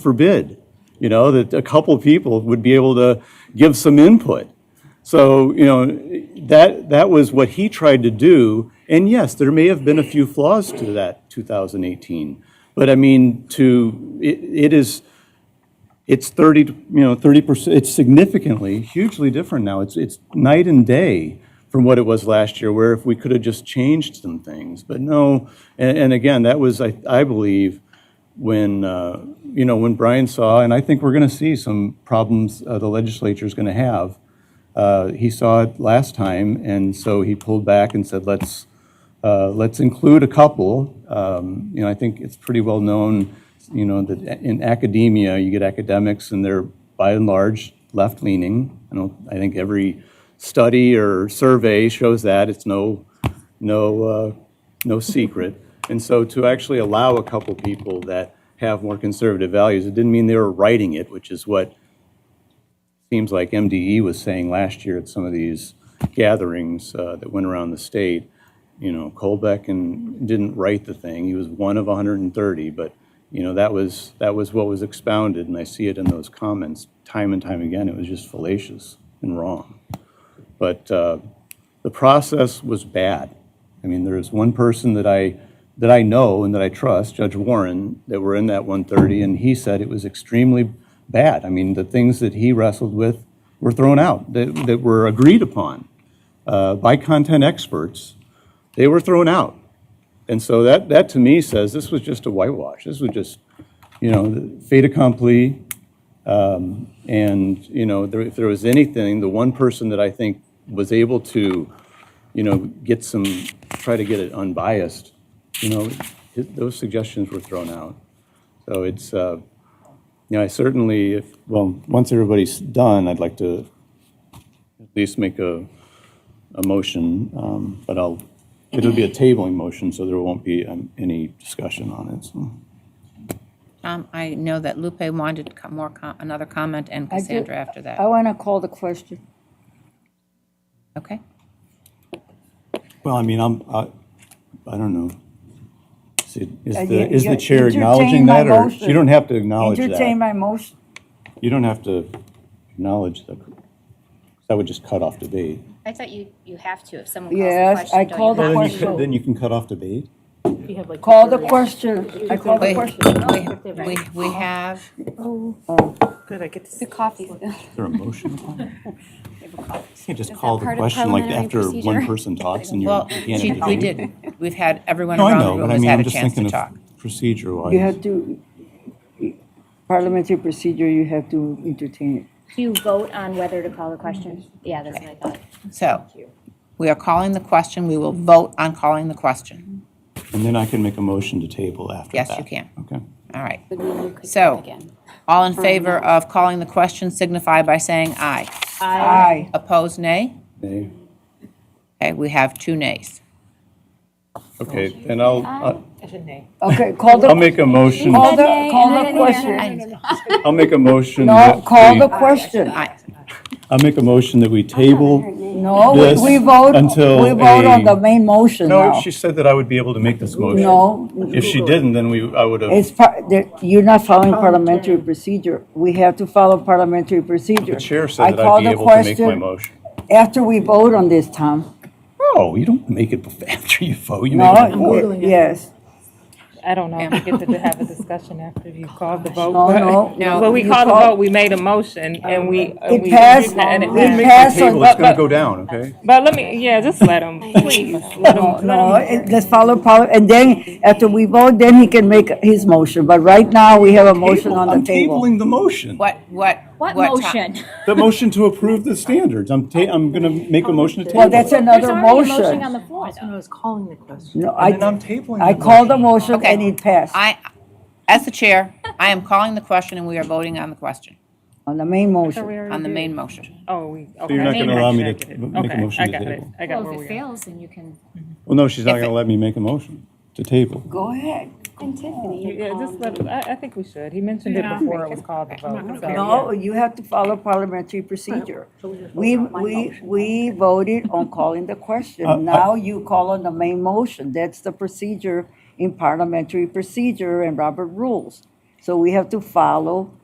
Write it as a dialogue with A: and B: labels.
A: forbid, you know, that a couple people would be able to give some input. So, you know, that, that was what he tried to do. And yes, there may have been a few flaws to that 2018. But I mean, to, it, it is, it's 30, to- you know, 30%, it's significantly, hugely different now. It's, it's night and day from what it was last year, where if we could have just changed some things. But no, and, and again, that was, I, I believe, when, uh, you know, when Brian saw, and I think we're going to see some problems uh, the legislature's going to have. Uh, He saw it last time, and so he pulled back and said, let's, uh, let's include a couple. Um, You know, I think it's pretty well known, you know, that a- in academia, you get academics and they're by and large left-leaning. I don't, I think every study or survey shows that. It's no, no, uh, no secret. And so to actually allow a couple people that have more conservative values, it didn't mean they were writing it, which is what seems like MDE was saying last year at some of these gatherings uh, that went around the state, you know, Colbeck and didn't write the thing. He was one of 130, but you know that was that was what was expounded, and I see it in those comments time and time again. It was just fallacious and wrong. But uh, the process was bad. I mean, there is one person that I, that I know and that I trust, Judge Warren, that were in that 130, and he said it was extremely bad. I mean, the things that he wrestled with were thrown out, that, that were agreed upon uh, by content experts. They were thrown out. And so that, that to me says this was just a whitewash. This was just, you know, fait accompli, Um, and, you know, there- if there was anything, the one person that I think was able to, you know, get some, try to get it unbiased, you know, hi- those suggestions were thrown out. So it's, uh, you know, I certainly, if, well, once everybody's done, I'd like to at least make a, a motion, um, but I'll, it'll be a tabling motion, so there won't be um, any discussion on it, so.
B: Um, I know that Lupe wanted co- more, co- another comment and
C: I do-
B: Cassandra after that.
D: Oh.
C: I want to call the question.
B: Okay?
A: Well, I mean, I'm, I, I don't know. Is it- Is
C: Uh,
A: the,
C: you-
A: is the
C: you-
A: chair
C: entertain
A: acknowledging
C: my
A: that, or
C: motion.
A: you don't have to acknowledge
C: Entertain
A: that?
C: my motion.
A: You don't have to acknowledge the, 'cause that would just cut off debate.
E: I thought you, you have to, if someone calls
C: Yes,
E: the question.
C: I
E: don't you
C: called the
E: have
A: Then
E: to?
A: you
C: question.
A: can, then you can cut off debate?
C: Call the question. I call the
B: We,
C: question.
D: Oh,
B: we- we, we have, Oh.
D: Good, I get to
F: The coffee. They
A: Is there a motion upon it? You
F: have a coffee.
A: can't just
F: Is that
A: call the
F: part of
A: question like
F: parliamentary
A: after one
F: procedure?
A: person talks and you're,
B: well,
A: you can't
B: she-
A: have
B: we
A: debate.
B: did, we've had, everyone
A: No, I
B: around the
A: know,
B: room
A: but I
B: has
A: mean,
B: had
A: I'm
B: a
A: just
B: chance to
A: thinking
B: talk.
A: of procedure
C: You have
A: wise.
C: to, parliamentary procedure, you have to entertain it.
E: Do you vote on whether to call the question? Yeah, that's what I thought.
B: So, we are calling the question, we will vote on calling the question.
A: And then I can make a motion to table after that.
B: Yes, you can.
A: Okay.
B: All right.
F: Would mean you could vote
B: So,
F: again.
B: all in favor of calling the question signify by saying aye.
C: Aye.
B: Opposed, nay?
A: Okay.
B: Okay, we have two nays.
A: Okay, then I'll,
C: Okay, call
A: I'll
C: the,
A: make a motion,
C: call the,
F: Yay,
C: call
F: and
C: the
F: then-
C: question.
A: I'll make a motion.
C: No,
A: that
C: call
A: we-
C: the question.
B: Aye.
A: I'll make a motion that we table
C: No, we-
A: This
C: we vote,
A: until
C: we vote on
A: a-
C: the main motion
A: No,
C: now.
A: she said that I would be able to make this motion.
C: No.
A: If she didn't, then we, I would have,
C: It's, par- there- you're not following parliamentary procedure. We have to follow parliamentary procedure.
A: the chair
C: I
A: said that
C: call
A: I'd be
C: the
A: able to make my
C: question
A: motion.
C: After we vote on this, Tom.
A: No, you don't make it bef- after you vote, you
C: No,
A: make it before.
C: you- yes.
D: I don't know, we get to have a discussion after you called the vote.
C: No, Oh, no.
B: No.
D: Well, we
C: You
D: called the
C: call-
D: vote, we made a motion and we. and
C: It
D: we-
C: passed.
D: and it
C: We
D: passed.
C: passed.
A: Table, it's gonna go down, okay?
D: But let me, yeah, just let him, please. let 'em-
C: No, no, it- let's follow, poli- and then after we vote, then he can make his motion. But right now, we have a motion on
A: I'm
C: the table.
A: tabling the motion.
B: What, what?
F: What
B: ti-
F: motion?
A: The motion to approve the standards. I'm ta, I'm gonna make a motion to table.
C: Well, that's
A: it.
C: another
F: There's already a motion on
C: motion.
F: the floor, though.
D: I was calling the question.
C: No,
A: And then
C: I,
A: I'm tabling.
C: I
A: the
C: called the
A: motion.
C: motion
B: Okay.
C: and it passed
B: I, as the chair, I am calling the question and we are voting on the question,
C: on the main motion.
B: on the main motion.
D: Oh, we.
A: So you're not
D: okay.
A: gonna allow me to
D: Okay,
A: m- make a motion to
D: I got it,
A: table?
D: I got where
F: Well, if it
D: we are.
F: fails, then you can,
A: Well, no, she's not
B: If
A: gonna
B: it-
A: let me make a motion to table.
C: Go ahead.
F: and Tiffany.
D: Yeah, just let, him- I, I think we should, he mentioned it before it was called the vote. so, yeah.
C: No, you have to follow parliamentary procedure. We, we, we voted on calling the question. Now you call on the main motion. That's the procedure in parliamentary procedure and Robert rules. So we have to follow